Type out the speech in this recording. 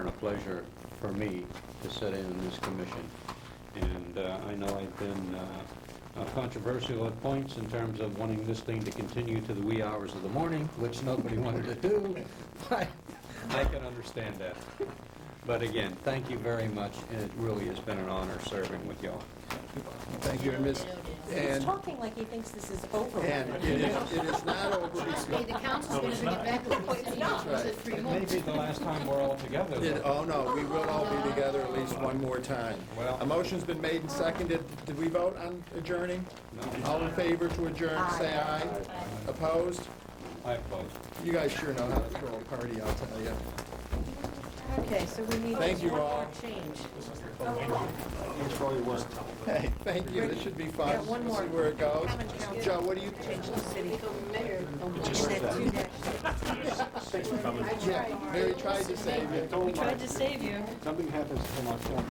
pleasure for me to sit in this commission. And uh, I know I've been uh, uh, controversial at points in terms of wanting this thing to continue to the wee hours of the morning, which nobody wanted to do, but I can understand that. But again, thank you very much, and it really has been an honor serving with y'all. Thank you, and Ms., He's and, talking like he thinks this is over. and already. it is, it is not over Trust me, because, the council's going to bring it back over to you That's right. in three It may months. be the last time we're all together. though. it- oh no, we will all be together at least one more time. Well- A motion's been made and seconded. Did we vote on adjourning? No. All in favor to adjourn, say aye. Opposed? I oppose. You guys sure know how to throw a party, I'll tell you. Okay, so we need Thank just you one all. more change. Hey, thank you, this should be fun. Yeah, one more. See where it goes. Haven't counted. Joe, what do you, Change the city. Just And that's two dash. yeah, Mary tried to save you. We tried to save you. Something happens to my phone.